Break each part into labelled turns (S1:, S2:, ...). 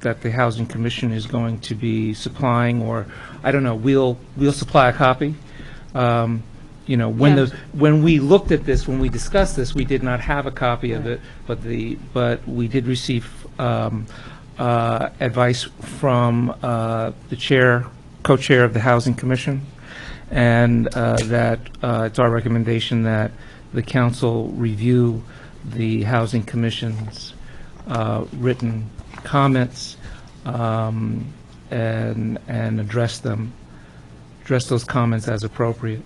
S1: that the Housing Commission is going to be supplying, or, I don't know, we'll, we'll supply a copy. Um, You know, when
S2: Yeah.
S1: the, when we looked at this, when we discussed this, we did not have a copy of it, but the, but we did receive um, uh, advice from uh, the chair, co-chair of the Housing Commission, and uh, that uh, it's our recommendation that the council review the Housing Commission's uh, written comments um, and, and address them, address those comments as appropriate.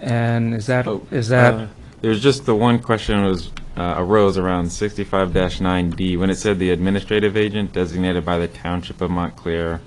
S1: And is that,
S3: Oh,
S1: is
S3: uh,
S1: that,
S3: There's just the one question was, uh, arose around 65-9D, when it said the administrative agent designated by the Township of Montclair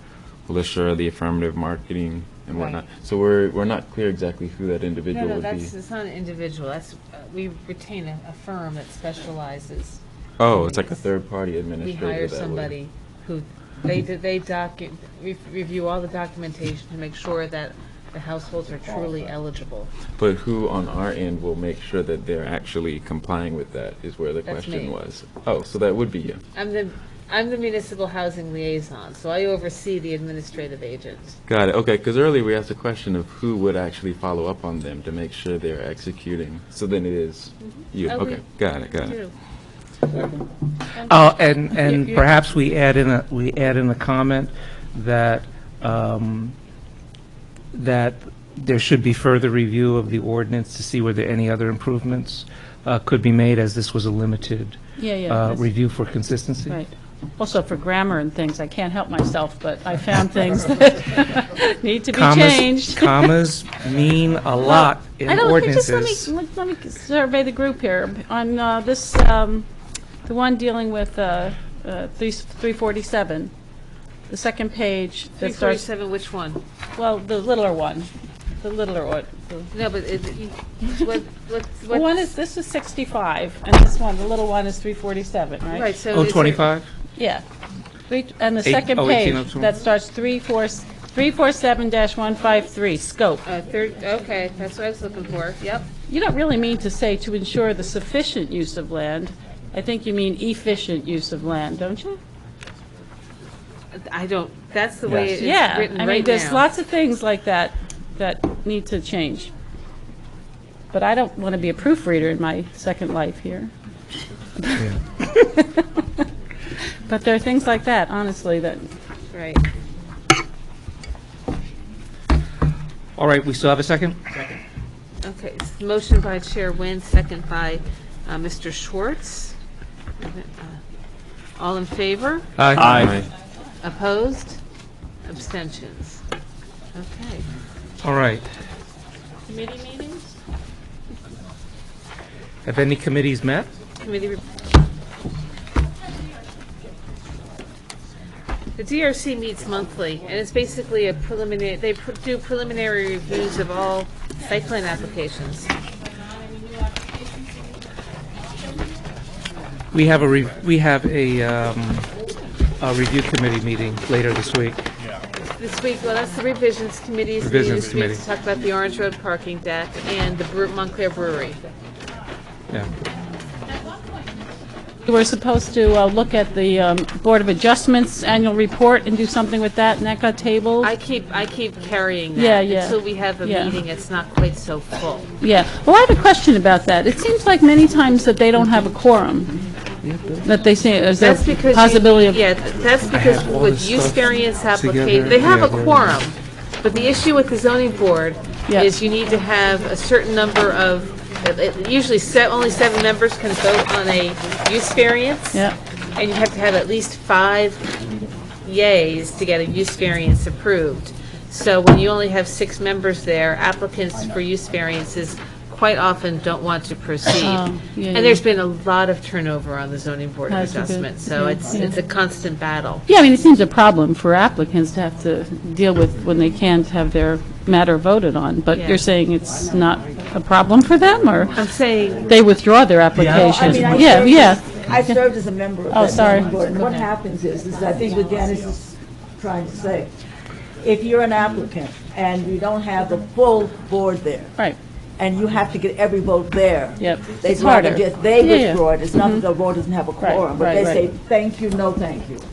S3: will assure the affirmative marketing and whatnot. So we're, we're not clear exactly who that
S2: No,
S3: individual
S2: no,
S3: would be.
S2: that's, it's not an individual, that's, uh, we retain a, a firm that specializes.
S3: Oh, it's like a third-party
S2: We
S3: administrator
S2: hire
S3: that would-
S2: somebody who, they, do- they docu, re- review all the documentation to make sure that the households are truly eligible.
S3: But who on our end will make sure that they're actually complying with that is where the
S2: That's me.
S3: question was. Oh, so that would be you.
S2: I'm the, I'm the municipal housing liaison, so I oversee the administrative agent.
S3: Got it. Okay, because earlier we asked a question of who would actually follow up on them to make sure they're executing. So then it is you.
S2: I
S3: Okay,
S2: would
S3: got it, got it.
S2: True.
S1: oh, and, and
S2: you-
S1: perhaps we add in a, we add in a comment that, um, that there should be further review of the ordinance to see whether any other improvements uh, could be made, as this was a limited
S4: Yeah, yeah.
S1: uh,
S4: that's
S1: review for consistency.
S4: Right. Also for grammar and things, I can't help myself, but I found things that need to be
S1: Commas-
S4: changed.
S1: Commas mean a lot in
S4: I don't think,
S1: ordinances.
S4: just let me, let- let me survey the group here. On uh, this, um, the one dealing with uh, uh, three- 347, the second page
S2: Three
S4: that starts,
S2: forty-seven, which one?
S4: well, the littler one, the littler one. the-
S2: No, but it, you- what, what,
S4: The
S2: what?
S4: one is, this is 65, and this one, the little one is 347, right?
S2: Right, so.
S1: Oh,
S2: is there-
S1: 25?
S4: Yeah. Three- And the
S1: Eight-
S4: second
S1: oh, eighteen
S4: page,
S1: of them.
S4: that starts three four s- 347-153, scope.
S2: Uh, third, okay, that's what I was looking for, yep.
S4: You don't really mean to say to ensure the sufficient use of land. I think you mean efficient use of land, don't you?
S2: I don't, that's the way it's
S4: Yeah,
S2: written
S4: I mean,
S2: right
S4: there's
S2: now.
S4: lots of things like that that need to change. But I don't want to be a proofreader in my second life here. But there are things like that, honestly, that,
S2: Right.
S1: All right, we still have a second?
S2: Okay, it's motion by Chair Nguyen, second by uh, Mr. Schwartz. Uh, All in favor?
S1: Aye.
S3: Aye.
S2: Opposed? Abstentions? Okay.
S1: All right.
S2: Committee meetings?
S1: Have any committees met?
S2: Committee. rep- The DRC meets monthly, and it's basically a preliminary, they pr- do preliminary reviews of all site plan applications.
S1: We have a, re- we have a, um, a review committee meeting later this week.
S2: This week, well, that's the revisions committees. meeting
S1: Revisions
S2: this week
S1: committee.
S2: To talk about the Orange Road parking deck and the Bre- Montclair Brewery.
S1: Yeah.
S4: we were supposed to uh, look at the um, Board of Adjustments annual report and do something with that, and that got tabled.
S2: I keep, I keep carrying that.
S4: Yeah, yeah.
S2: Until we have a
S4: Yeah.
S2: meeting, it's not quite so full.
S4: Yeah, well, I have a question about that. It seems like many times that they don't have a quorum, that they say, is there
S2: That's because. you-
S4: possibility of...
S2: Yeah, that's because
S1: all
S2: with
S1: this
S2: use
S1: stuff
S2: variance application,
S1: together.
S2: they have
S1: Yeah,
S2: a
S1: they're-
S2: quorum. But the issue with the zoning board
S4: Yeah.
S2: is you need to have a certain number of, it- it- usually se- only seven members can vote on a use variance.
S4: Yeah.
S2: And you have to have at least five yays to get a use variance approved. So when you only have six members there, applicants for use variances quite often don't want to proceed.
S4: Oh, yeah,
S2: And
S4: yeah.
S2: there's been a lot of turnover on the zoning board of
S4: That's a good-
S2: adjustment, so
S4: yeah,
S2: it's,
S4: yeah.
S2: it's a constant battle.
S4: Yeah, I mean, it seems a problem for applicants to have to deal with when they can't have their matter voted on, but
S2: Yeah.
S4: you're saying it's not a problem for them, or
S2: I'm saying,
S4: they withdraw their application?
S5: mean, I
S4: Yeah,
S5: served
S4: yeah,
S5: as- I served as a member of
S4: Oh,
S5: that
S4: sorry.
S5: zoning board, and what happens is, is I think what Dennis is trying to say, if you're an applicant and you don't have the full board there,
S4: right,
S5: and you have to get every vote there.
S4: Yep.
S5: They'd
S4: It's
S5: rather
S4: harder.
S5: just, they
S4: Yeah, yeah.
S5: withdraw it, it's not that the board doesn't have a
S4: Right,
S5: quorum, but
S4: right,
S5: they
S4: right.
S5: say, thank you, no thank you.